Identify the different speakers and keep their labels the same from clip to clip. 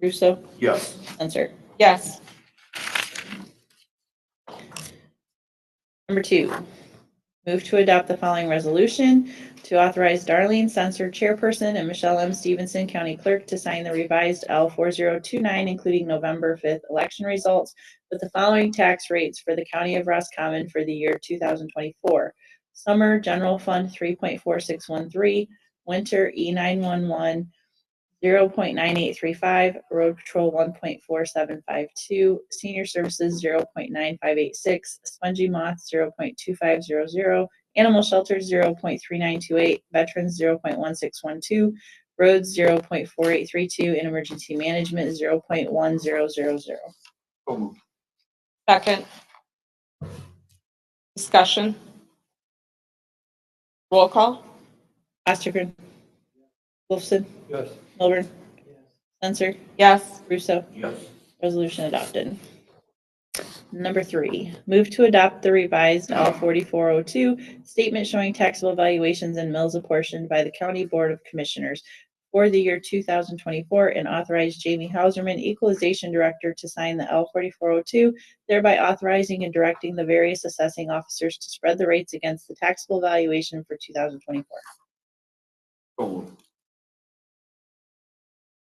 Speaker 1: Russo,
Speaker 2: Yes.
Speaker 1: Censor.
Speaker 3: Yes.
Speaker 1: Number two, move to adopt the following resolution to authorize Darlene Censor, Chairperson, and Michelle M. Stevenson, County Clerk, to sign the revised L four zero two nine, including November fifth election results with the following tax rates for the County of Roscommon for the year two thousand twenty-four. Summer General Fund three point four six one three, Winter E 911 0.9835, Road Patrol one point four seven five two, Senior Services zero point nine five eight six, Spongy Moth zero point two five zero zero, Animal Shelter zero point three nine two eight, Veterans zero point one six one two, Roads zero point four eight three two, and Emergency Management zero point one zero zero zero.
Speaker 2: So moved.
Speaker 3: Second. Discussion. Roll call.
Speaker 1: Ostergren. Wolfson.
Speaker 2: Yes.
Speaker 1: Milburn. Censor.
Speaker 3: Yes.
Speaker 1: Russo.
Speaker 2: Yes.
Speaker 1: Resolution adopted. Number three, move to adopt the revised L forty-four oh two statement showing taxable valuations and mills apportioned by the County Board of Commissioners for the year two thousand twenty-four and authorize Jamie Hauserman, Equalization Director, to sign the L forty-four oh two, thereby authorizing and directing the various assessing officers to spread the rates against the taxable valuation for two thousand twenty-four.
Speaker 2: So moved.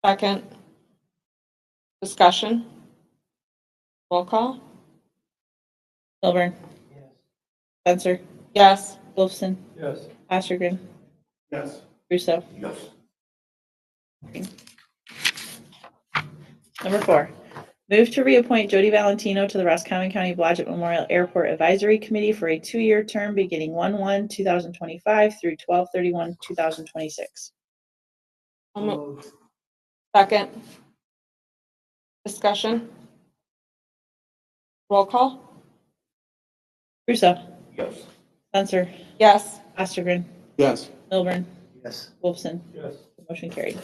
Speaker 3: Second. Discussion. Roll call.
Speaker 1: Milburn. Spencer.
Speaker 3: Yes.
Speaker 1: Wolfson.
Speaker 2: Yes.
Speaker 1: Ostergren.
Speaker 2: Yes.
Speaker 1: Russo.
Speaker 2: Yes.
Speaker 1: Number four, move to reappoint Jody Valentino to the Roscommon County Blodgett Memorial Airport Advisory Committee for a two-year term beginning 1/1/2025 through 12/31/2026.
Speaker 3: I'll mo- Second. Discussion. Roll call.
Speaker 1: Russo,
Speaker 2: Yes.
Speaker 1: Censor,
Speaker 3: Yes.
Speaker 1: Ostergren,
Speaker 2: Yes.
Speaker 1: Milburn,
Speaker 2: Yes.
Speaker 1: Wolfson.
Speaker 2: Yes.
Speaker 1: Motion carried.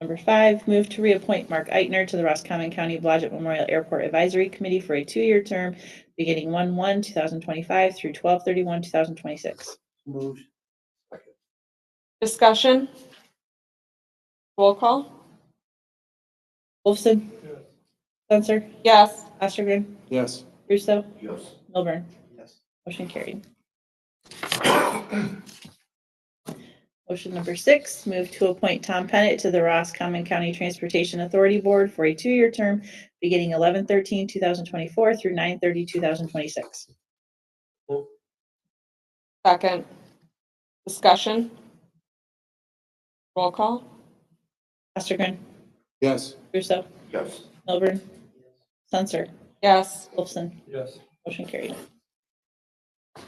Speaker 1: Number five, move to reappoint Mark Eitner to the Roscommon County Blodgett Memorial Airport Advisory Committee for a two-year term beginning 1/1/2025 through 12/31/2026.
Speaker 2: Moved.
Speaker 3: Discussion. Roll call.
Speaker 1: Wolfson,
Speaker 2: Yes.
Speaker 1: Censor,
Speaker 3: Yes.
Speaker 1: Ostergren,
Speaker 2: Yes.
Speaker 1: Russo,
Speaker 2: Yes.
Speaker 1: Milburn.
Speaker 2: Yes.
Speaker 1: Motion carried. Motion number six, move to appoint Tom Pettit to the Roscommon County Transportation Authority Board for a two-year term beginning 11-13-2024 through 9-30-2026.
Speaker 3: Second. Discussion. Roll call.
Speaker 1: Ostergren,
Speaker 2: Yes.
Speaker 1: Russo,
Speaker 2: Yes.
Speaker 1: Milburn, Censor,
Speaker 3: Yes.
Speaker 1: Wolfson.
Speaker 2: Yes.
Speaker 1: Motion carried.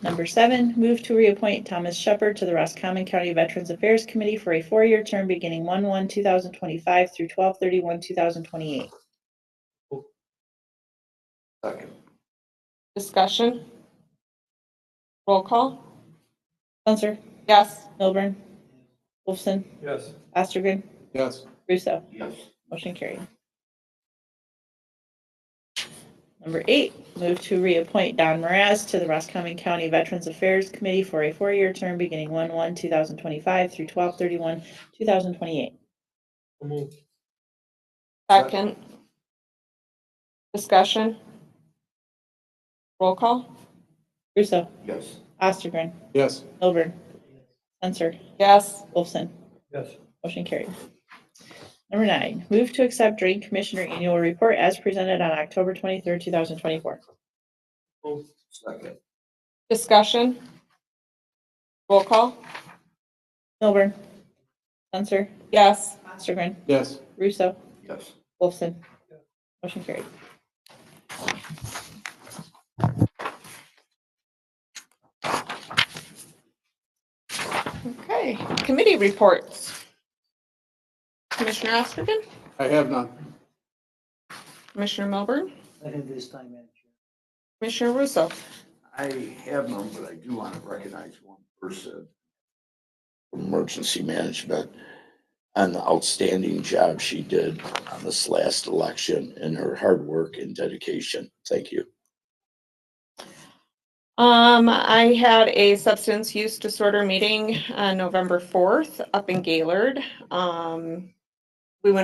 Speaker 1: Number seven, move to reappoint Thomas Shepherd to the Roscommon County Veterans Affairs Committee for a four-year term beginning 1/1/2025 through 12/31/2028.
Speaker 2: Second.
Speaker 3: Discussion. Roll call.
Speaker 1: Censor,
Speaker 3: Yes.
Speaker 1: Milburn, Wolfson,
Speaker 2: Yes.
Speaker 1: Ostergren,
Speaker 2: Yes.
Speaker 1: Russo.
Speaker 2: Yes.
Speaker 1: Motion carried. Number eight, move to reappoint Don Moraz to the Roscommon County Veterans Affairs Committee for a four-year term beginning 1/1/2025 through 12/31/2028.
Speaker 2: Moved.
Speaker 3: Second. Discussion. Roll call.
Speaker 1: Russo,
Speaker 2: Yes.
Speaker 1: Ostergren,
Speaker 2: Yes.
Speaker 1: Milburn, Censor,
Speaker 3: Yes.
Speaker 1: Wolfson.
Speaker 2: Yes.
Speaker 1: Motion carried. Number nine, move to accept Drain Commissioner Annual Report as presented on October twenty-third, two thousand twenty-four.
Speaker 2: Moved. Second.
Speaker 3: Discussion. Roll call.
Speaker 1: Milburn. Censor.
Speaker 3: Yes.
Speaker 1: Ostergren.
Speaker 2: Yes.
Speaker 1: Russo.
Speaker 2: Yes.
Speaker 1: Wolfson. Motion carried.
Speaker 3: Okay. Committee reports. Commissioner Ostergen,
Speaker 2: I have none.
Speaker 3: Commissioner Melbourne,
Speaker 4: I think this time, Madam Chair.
Speaker 3: Commissioner Russo.
Speaker 2: I have none, but I do want to recognize one person. from Emergency management
Speaker 5: on the outstanding job she did on this last election and her hard work and dedication. Thank you.
Speaker 3: Um, I had a uh, substance use disorder meeting on November fourth up in Gaylord. Um,